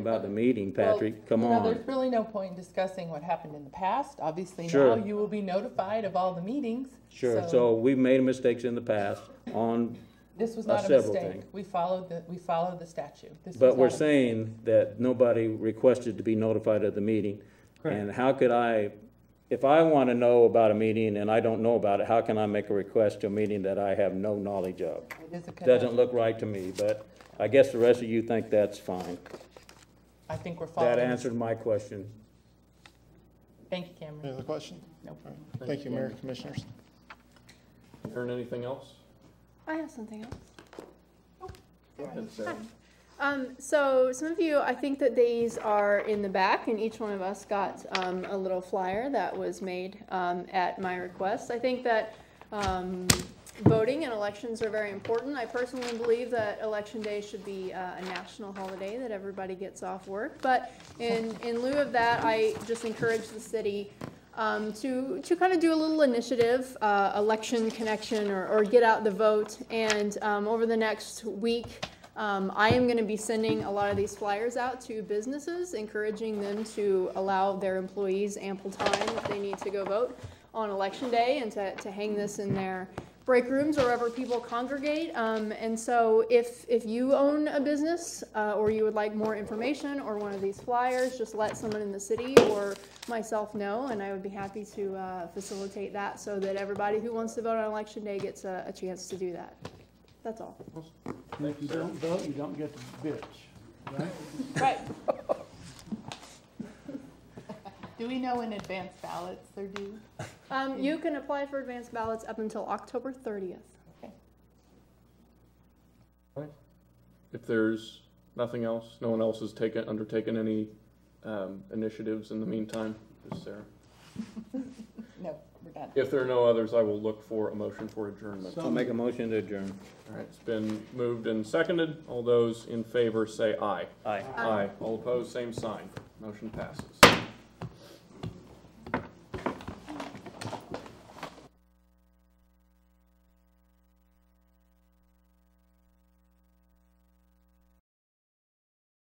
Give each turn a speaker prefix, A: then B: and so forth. A: about the meeting, Patrick,
B: Well,
A: come
B: you know, There's
A: on.
B: really no point in discussing what happened in the past. Obviously now
A: Sure.
B: you will be notified of all the meetings.
A: Sure, so we've made mistakes in the past on,
B: This was
A: uh,
B: not a
A: several
B: mistake.
A: things.
B: We followed the, we followed the statute. This was
A: but we're
B: not a-
A: saying that nobody requested to be notified of the meeting. And how could I, if I want to know about a meeting and I don't know about it, how can I make a request to a meeting that I have no knowledge of?
B: It is a
A: Doesn't
B: conundrum.
A: look right to me, but I guess the rest of you think that's fine.
B: I think we're following.
A: That answered my question.
B: Thank you,
C: Any
B: Cameron.
C: other question?
B: Nope.
C: All right. Thank you, Mayor, Commissioners.
D: Earn anything else?
E: I have something else.
D: Sarah.
E: Um, so some of you, I think that these are in the back, and each one of us got um, a little flyer that was made um, at my request. I think that um, voting and elections are very important. I personally believe that election day should be uh, a national holiday that everybody gets off work. But in in lieu of that, I just encourage the city um, to, to kind of do a little initiative, uh, election connection, or, or get out the vote. And um, over the next week, um, I am going to be sending a lot of these flyers out to businesses, encouraging them to allow their employees ample time if they need to go vote on election day and to, to hang this in their break rooms or wherever people congregate. Um, and so if, if you own a business uh, or you would like more information or one of these flyers, just let someone in the city or myself know, and I would be happy to uh, facilitate that so that everybody who wants to vote on election day gets a, a chance to do that. That's all.
F: And if you don't vote, you don't get the bitch.
E: Right.
B: Do we know when advance ballots are due?
E: Um, you can apply for advanced ballots up until October thirtieth.
D: If there's nothing else, no one else has taken, undertaken any um, initiatives in the meantime, just Sarah.
B: No, we're done.
D: If there are no others, I will look for a motion for adjournment.
F: So-
D: All
A: I'll make a motion to adjourn.
D: right, it's been moved and seconded. All those in favor say aye.
A: Aye.
E: Aye.
D: All opposed, same sign. Motion passes.